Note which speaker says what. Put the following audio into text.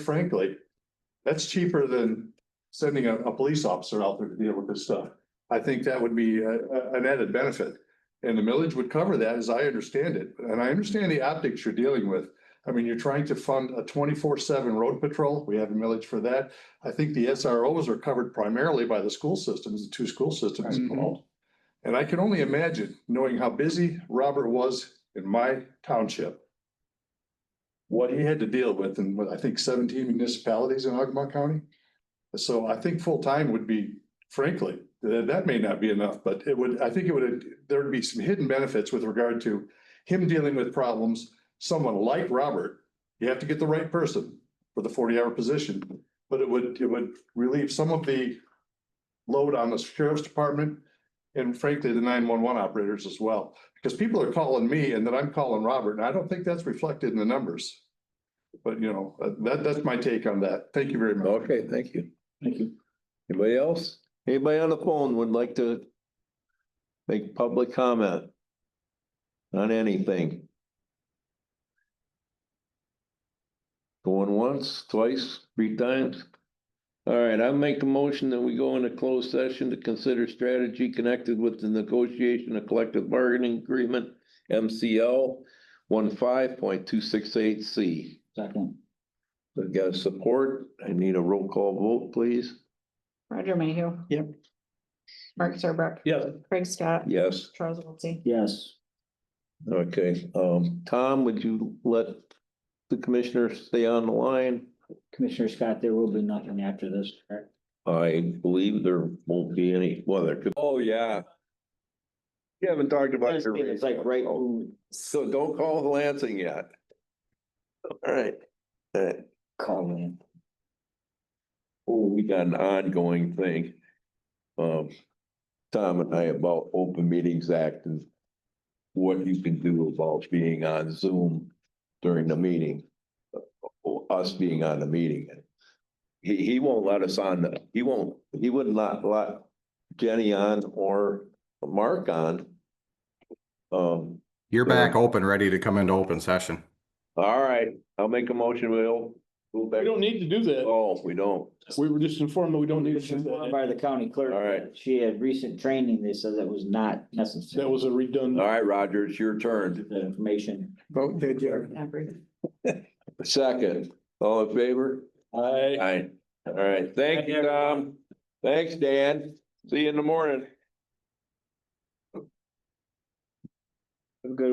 Speaker 1: frankly, that's cheaper than sending a, a police officer out there to deal with this stuff. I think that would be a- a- an added benefit. And the millage would cover that as I understand it. And I understand the optics you're dealing with. I mean, you're trying to fund a twenty-four seven road patrol. We have a millage for that. I think the SROs are covered primarily by the school systems, the two school systems
Speaker 2: Mhm.
Speaker 1: involved. And I can only imagine, knowing how busy Robert was in my township, what he had to deal with in, what, I think seventeen municipalities in Ogama County. So I think full-time would be, frankly, that, that may not be enough, but it would, I think it would, there'd be some hidden benefits with regard to him dealing with problems, someone like Robert, you have to get the right person for the forty-hour position, but it would, it would relieve some of the load on the sheriff's department and frankly, the nine-one-one operators as well. Because people are calling me and then I'm calling Robert, and I don't think that's reflected in the numbers. But you know, that, that's my take on that. Thank you very much.
Speaker 2: Okay, thank you.
Speaker 1: Thank you.
Speaker 2: Anybody else? Anybody on the phone would like to make public comment on anything? Going once, twice, three times? All right, I make the motion that we go into closed session to consider strategy connected with the negotiation of collective bargaining agreement, MCL one C.
Speaker 3: Second.
Speaker 2: I got support. I need a roll call vote, please.
Speaker 4: Roger Mayhew.
Speaker 3: Yep.
Speaker 4: Mark Serbrook,
Speaker 2: Yes.
Speaker 4: Craig Scott,
Speaker 2: Yes.
Speaker 4: Charles Wiltie.
Speaker 3: Yes.
Speaker 2: Okay, um, Tom, would you let the commissioners stay on the line?
Speaker 3: Commissioner Scott, there will be nothing after this, correct?
Speaker 2: I believe there won't be any, well, there could. Oh, yeah. You haven't talked about. your
Speaker 3: It's like right.
Speaker 2: So don't call Lansing yet. All right, all right.
Speaker 3: Call in.
Speaker 2: Oh, we got an ongoing thing. Um, Tom and I about Open Meetings Act and what you can do about being on Zoom during the meeting. uh, or Us being on the meeting. He, he won't let us on, the- he won't, he would not let Jenny on or Mark on. Um,
Speaker 5: You're
Speaker 2: Yeah.
Speaker 5: back open, ready to come into open session.
Speaker 2: all right, I'll make a motion, we'll. go back-
Speaker 6: We don't need to do that.
Speaker 2: Oh, we don't.
Speaker 6: We were just informed that we don't need to do that.
Speaker 3: By the county clerk.
Speaker 2: All right.
Speaker 3: She had recent training. They said that was not necessary.
Speaker 6: That was a
Speaker 2: All
Speaker 6: redundant.
Speaker 2: right, Roger, it's your turn.
Speaker 3: The information.
Speaker 6: Vote to adjourn.
Speaker 4: Every-
Speaker 2: Second, all in favor?
Speaker 6: Aye.
Speaker 2: Aye. All right, thank you, Tom. Thanks, Dan. See you in the morning.
Speaker 3: Have a good